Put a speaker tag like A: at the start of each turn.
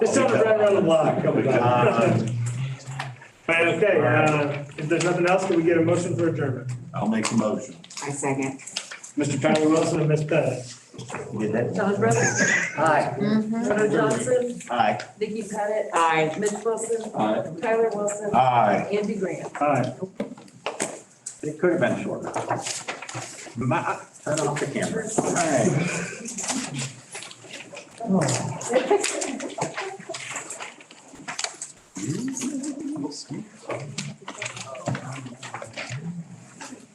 A: This time it's right around the block. Come
B: Uh,
A: on. Right, okay, uh, if there's nothing else, can we get a motion for adjournment?
B: I'll make the motion.
C: I second.
A: Mr. Tyler Wilson and Ms. Pettis.
B: With that.
D: John Brothers,
B: Aye.
D: Rono Johnson,
B: Aye.
D: Vicky Pettit,
C: Aye.
D: Mitch Wilson,
B: Aye.
D: Tyler Wilson,
B: Aye.
D: Andy Grant.
A: Aye.
B: It could have been shorter. My, turn off the camera. All right.